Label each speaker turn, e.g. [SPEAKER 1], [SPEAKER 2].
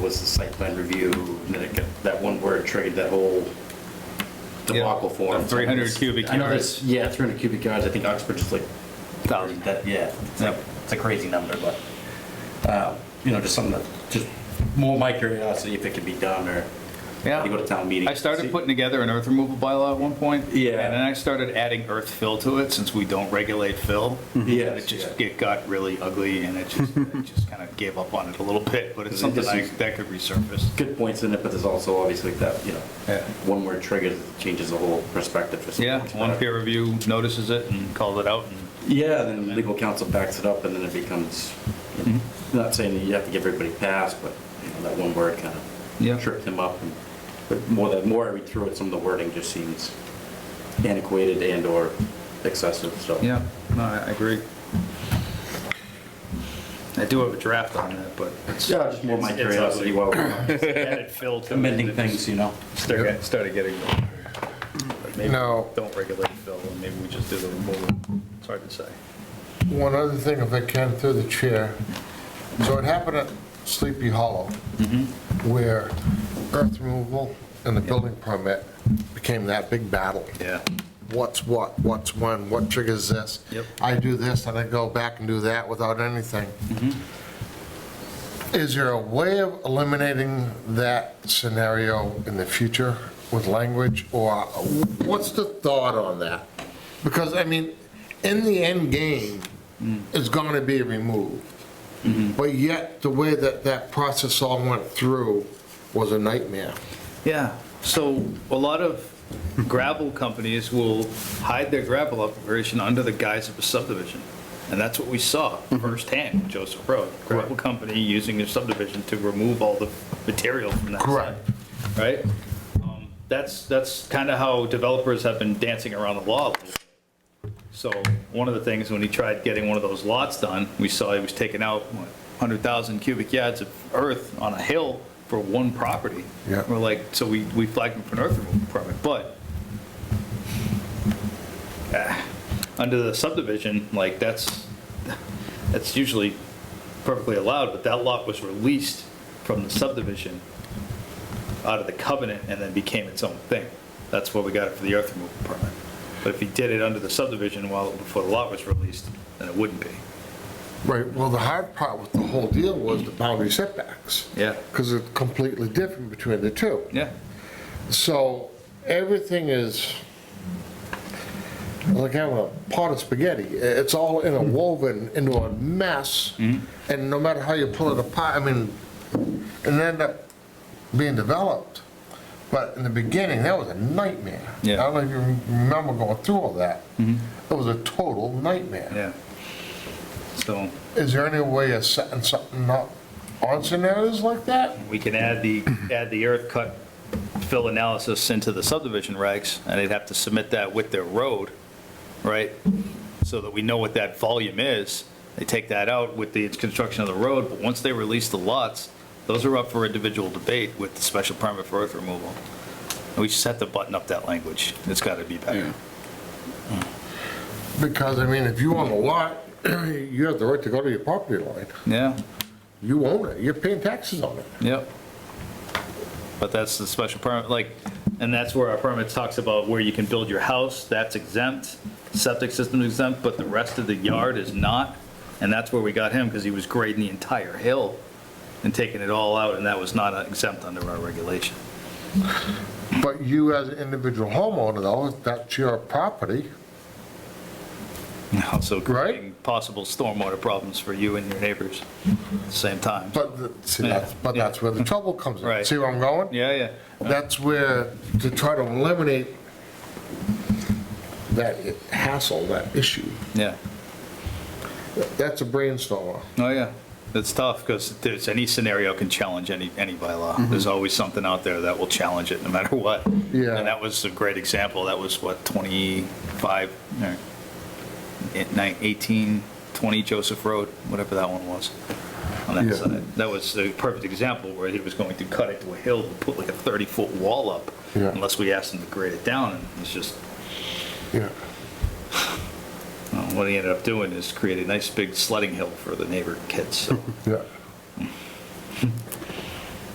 [SPEAKER 1] was the site plan review, and then it got, that one word triggered that whole debacle
[SPEAKER 2] Yeah,
[SPEAKER 1] form.
[SPEAKER 2] the 300 cubic
[SPEAKER 1] I know
[SPEAKER 2] yards.
[SPEAKER 1] there's- Yeah, 300 cubic yards, I think Oxbridge is like,
[SPEAKER 2] Thousand.
[SPEAKER 1] that, yeah, it's a, it's a crazy number, but, uh, you know, just something that, just more my curiosity if it could be done, or
[SPEAKER 2] Yeah.
[SPEAKER 1] you go to town meeting.
[SPEAKER 2] I started
[SPEAKER 1] see-
[SPEAKER 2] putting together an earth removal bylaw at one point.
[SPEAKER 1] Yeah.
[SPEAKER 2] And then I started adding earth fill to it, since we don't regulate fill.
[SPEAKER 1] Yes,
[SPEAKER 2] And It just,
[SPEAKER 1] yeah.
[SPEAKER 2] it got really ugly, and it just, it just kind of gave up on it a little bit, but it's
[SPEAKER 1] It
[SPEAKER 2] something
[SPEAKER 1] just
[SPEAKER 2] I-
[SPEAKER 1] is-
[SPEAKER 2] that could resurface.
[SPEAKER 1] Good points in it, but there's also obviously that, you know,
[SPEAKER 2] Yeah.
[SPEAKER 1] one word triggers, changes the whole perspective for some
[SPEAKER 2] Yeah,
[SPEAKER 1] folks,
[SPEAKER 2] one
[SPEAKER 1] but-
[SPEAKER 2] peer review notices it and calls it out, and
[SPEAKER 1] Yeah, then legal counsel backs it up, and then it becomes, you know,
[SPEAKER 2] Mm-hmm.
[SPEAKER 1] not saying that you have to give everybody pass, but you know, that one word kind
[SPEAKER 2] Yeah.
[SPEAKER 1] of tripped him up. and- But more, the more I read through it, some of the wording just seems antiquated and/or excessive, so.
[SPEAKER 2] Yeah, no, I I agree. I do have a draft on that, but it's.
[SPEAKER 1] Yeah, just more my
[SPEAKER 2] It's- it's
[SPEAKER 1] curiosity
[SPEAKER 2] ugly.
[SPEAKER 1] while we're
[SPEAKER 2] Added fill to it.
[SPEAKER 1] amending things, you know?
[SPEAKER 2] Started started getting. Maybe we
[SPEAKER 3] Now-
[SPEAKER 2] Don't regulate fill, and maybe we just do the removal. It's hard to say.
[SPEAKER 3] One other thing, if I can, through the chair. So it happened at Sleepy Hollow, where earth removal and the building permit became that big battle.
[SPEAKER 2] Yeah.
[SPEAKER 3] What's what, what's when, what triggers this?
[SPEAKER 2] Yep.
[SPEAKER 3] I do this, and I go back and do that without anything. Is there a way of eliminating that scenario in the future with language, or what's the thought on that? Because, I mean, in the end game, it's going to be removed. But yet, the way that that process all went through was a nightmare.
[SPEAKER 2] Yeah, so a lot of gravel companies will hide their gravel operation under the guise of a subdivision. And that's what we saw firsthand, with Joseph Road. Gravel company using a subdivision to remove all the material from that site.
[SPEAKER 3] Correct.
[SPEAKER 2] Right? Um, That's, that's kind of how developers have been dancing around the law a little bit. So one of the things, when he tried getting one of those lots done, we saw he was taking out what, 100,000 cubic yards of earth on a hill for one property.
[SPEAKER 3] Yeah.
[SPEAKER 2] We're like, so we, we flagged him for an earth removal permit, but ah, under the subdivision, like, that's, that's usually perfectly allowed, but that lot was released from the subdivision out of the covenant and then became its own thing. That's where we got it for the earth removal permit. But if he did it under the subdivision while, before the lot was released, then it wouldn't be.
[SPEAKER 3] Right, well, the hard part with the whole deal was the boundary setbacks.
[SPEAKER 2] Yeah.
[SPEAKER 3] Because it's completely different between the two.
[SPEAKER 2] Yeah.
[SPEAKER 3] So everything is like having a pot of spaghetti. It's all interwoven into a mess,
[SPEAKER 2] Mm-hmm.
[SPEAKER 3] and no matter how you pull it apart, I mean, it ended up being developed. But in the beginning, that was a nightmare. I
[SPEAKER 2] Yeah. Mm-hmm.
[SPEAKER 3] don't know if you remember going through all that. It was a total nightmare.
[SPEAKER 2] Yeah. So
[SPEAKER 3] Is there any way of setting something up on scenarios like that?
[SPEAKER 2] we can add the, add the earth cut fill analysis into the subdivision regs, and they'd have to submit that with their road, right? So that we know what that volume is. They take that out with the construction of the road, but once they release the lots, those are up for individual debate with the special permit for earth removal. And We just have to button up that language. It's got to be better.
[SPEAKER 3] Because, I mean, if you own a lot, you have the right to go to your property line.
[SPEAKER 2] Yeah,
[SPEAKER 3] You own it, you're paying taxes on it.
[SPEAKER 2] yep. But that's the special permit, like, and that's where our permit talks about where you can build your house, that's exempt, septic system's exempt, but the rest of the yard is not. And that's where we got him, because he was grading the entire hill and taking it all out, and that was not exempt under our regulation.
[SPEAKER 3] But you as an individual homeowner, though, that's your property.
[SPEAKER 2] Also creating
[SPEAKER 3] Right.
[SPEAKER 2] possible stormwater problems for you and your neighbors at the same time.
[SPEAKER 3] But, the- see, that's, but
[SPEAKER 2] Yeah.
[SPEAKER 3] that's where the trouble comes in.
[SPEAKER 2] Right.
[SPEAKER 3] See where I'm going?
[SPEAKER 2] Yeah, yeah.
[SPEAKER 3] That's where, to try to eliminate that hassle, that issue,
[SPEAKER 2] Yeah.
[SPEAKER 3] that's a brainstormer.
[SPEAKER 2] Oh, yeah. That's tough because there's, any scenario can challenge any, any
[SPEAKER 3] Mm-hmm.
[SPEAKER 2] bylaw. There's always something out there that will challenge it no matter what.
[SPEAKER 3] Yeah.
[SPEAKER 2] And that was a great example. That was what, 25, or eight- nine- 18, 20 Joseph Road, whatever that one was on that
[SPEAKER 3] Yeah.
[SPEAKER 2] side. That was a perfect example where he was going to cut it to a hill and put like a 30-foot wall up
[SPEAKER 3] Yeah.
[SPEAKER 2] unless we asked him to grade it down. And it's just,
[SPEAKER 3] Yeah.
[SPEAKER 2] uh, well, what he ended up doing is create a nice big sledding hill for the neighbor kids. So
[SPEAKER 3] Yeah.